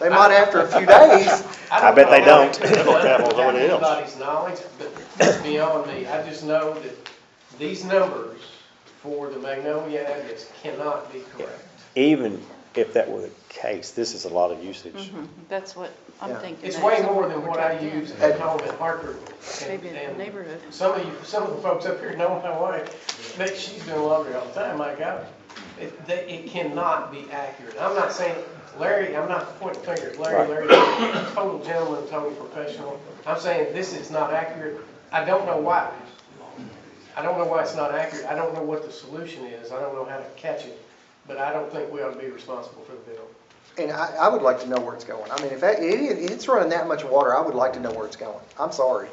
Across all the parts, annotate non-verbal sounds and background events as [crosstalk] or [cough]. They might after a few days. I bet [laughs] they know. don't. I don't know That was what it is. Anybody's knowledge, but it's beyond me, I just know that these numbers for the Magnolia address cannot be correct. Even if that were the case, this is a lot of usage. Mm-hmm. That's what I'm Yeah. thinking. It's that's way what more we than were what I talking. use at home in Hartford. and- Maybe in the and neighborhood. Some of you, some of the folks up here know my wife, Nick, she's doing laundry all the time, my God. It, they, it cannot be accurate. I'm not saying, Larry, I'm not pointing fingers, Larry, Larry, total gentleman, total professional. I'm saying this is not accurate. I don't know why. I don't know why it's not accurate. I don't know what the solution is. I don't know how to catch it. But I don't think we ought to be responsible for the bill. And I, I would like to know where it's going. I mean, if that, it, it- it's running that much water, I would like to know where it's going. I'm sorry.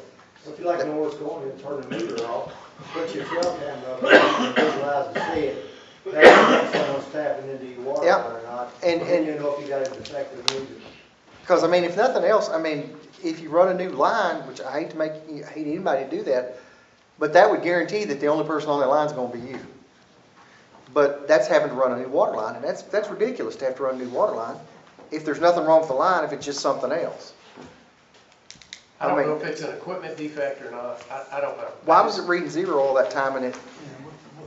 If you like to know where it's going, then turn the meter off, put your cell camera up, and visualize and see it. That's when someone's tapping into your water Yeah. line or not. And- Then and- you know if you got a defective meter. Because, I mean, if nothing else, I mean, if you run a new line, which I hate to make, I hate anybody to do that, but that would guarantee that the only person on that line is gonna be you. But that's having to run a new water line, and that's, that's ridiculous to have to run a new water line if there's nothing wrong with the line, if it's just something else. I I don't mean- know if it's an equipment defect or not. I, I don't know. Why was it reading zero all that time and it,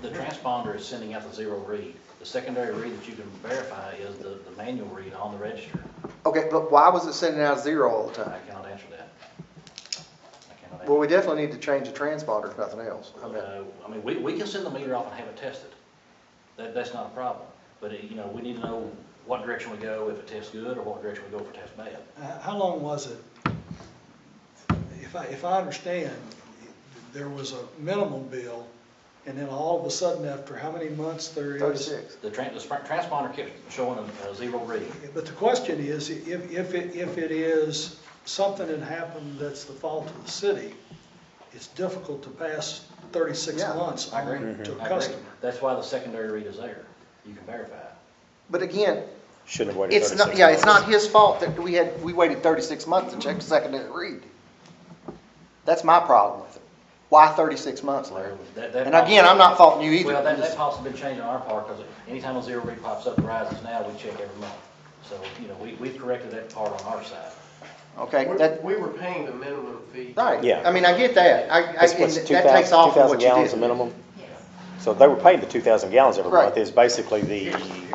The transponder is sending out the zero read. The secondary read that you can verify is the, the manual read on the register. okay, but why was it sending out zero all the I time? cannot answer that. I cannot Well, answer. we definitely need to change the transponder if nothing else. I mean, Uh, I mean, we, we can send the meter off and have it tested. That, that's not a problem. But, it- you know, we need to know what direction we go, if it tests good, or what direction we go if it tests bad. Uh, How long was it? If I, if I understand, there was a minimum bill, and then all of a sudden, after how many months there is? Thirty-six. The tran, the sp- transponder kept showing a, a zero read. But the question is, if, if it, if it is something that happened that's the fault of the city, it's difficult to pass thirty-six Yeah, months I agree. Mm-hmm. on to I a agree. customer. That's why the secondary read is there. You can verify it. But again, Shouldn't have waited it's thirty-six not, months. yeah, it's not his fault that we had, we waited thirty-six months to check the secondary read. That's my problem with it. Why thirty-six months, Larry? That- that And again, I'm not faulting you either. Well, that, I'm that just- policy's been changed on our part, because anytime a zero read pops up and rises now, we check every month. So, you know, we, we've corrected that part on our side. Okay, We- that, We were paying the minimum fee. right. Yeah. I mean, I get that. I, I, It's and what's that 2,000 takes off of 2,000 what you gallons a did. minimum? So they were paid the two thousand gallons every Right. month, is basically the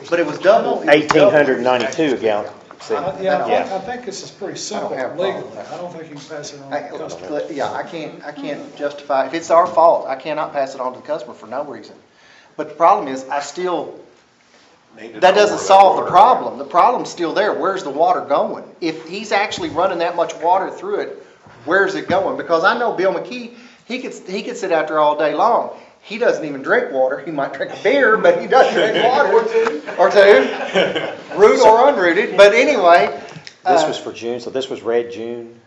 But it was double. it was double. eighteen hundred ninety-two a gallon. See, Uh, Yeah, I think, yeah. I think this is pretty simple have a problem with legally. I don't think you can pass it on I- uh, to a customer. Yeah, I can't, I can't justify, if it's our fault, I cannot pass it on to the customer for no reason. But the problem is, I still, that doesn't solve the problem. The problem's still there. Where's the water going? If he's actually running that much water through it, where's it going? Because I know Bill McKee, he could, he could sit out there all day long. He doesn't even drink water. He might drink a beer, but he doesn't drink water. Or two. Root or unrooted, but anyway. This uh, was for June, so this was red June,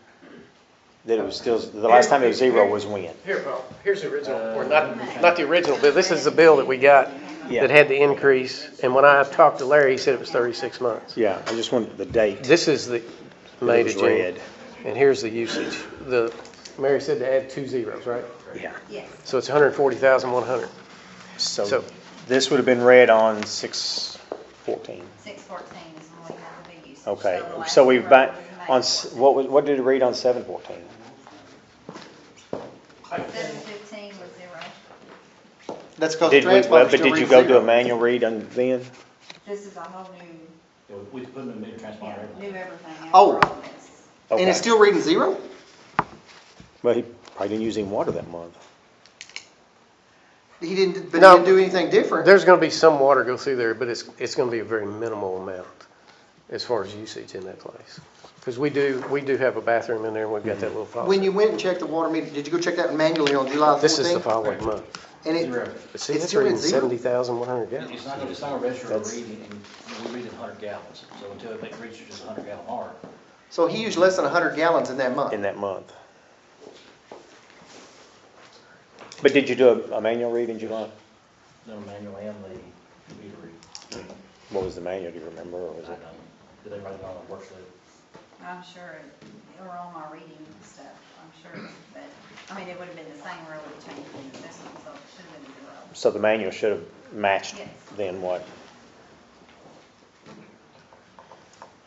that it was still, the last time it was zero was when? Here, Paul, here's the Uh, original, or not, not the original bill, this is the bill that we got that had the increase, and when I talked to Larry, he said it was thirty-six months. Yeah, I just wanted the date. This is the May to It was June, red. and here's the usage. The, Mary said to add two zeros, right? Yeah, So it's hundred and forty thousand, one hundred. so So- this would have been red on six fourteen. Six fourteen is when we have the big usage. Okay, the last so we've row back, is on, May s- what, was- what did it read on seven fourteen? 14. Seven fifteen was zero. That's because the Did we, transfer but still did you reads go do a zero. manual read on then? This is a whole new, You know, we put in a meter transponder every new everything after Oh. all this. And it's Okay. still reading zero? Well, he probably didn't use any water that month. He didn't, but he No. didn't do anything different. There's gonna be some water go through there, but it's, it's gonna be a very minimal amount as far as usage in that place. Because we do, we do have a bathroom in there, and we've got that little When faucet. you went and checked the water meter, did you go check that manually on July 14th? This is the following month. And Zero. it, But see, It's it's still at reading zero. seventy thousand, one hundred gallons. It's not, it's not a register of That's- reading, and we read in hundred gallons. So until it reaches just a hundred gallon mark, so he used less than 100 gallons in that month. in that month. But did you do a, a manual read in July? then the manual and the meter read. What was the manual, do you remember, or was I it? don't, did they write it on a worksheet? I'm sure, it- or on my reading stuff, I'm sure, but, I mean, it would have been the same row we changed in this one, so it should have been zero. So the manual should have matched Yes. then what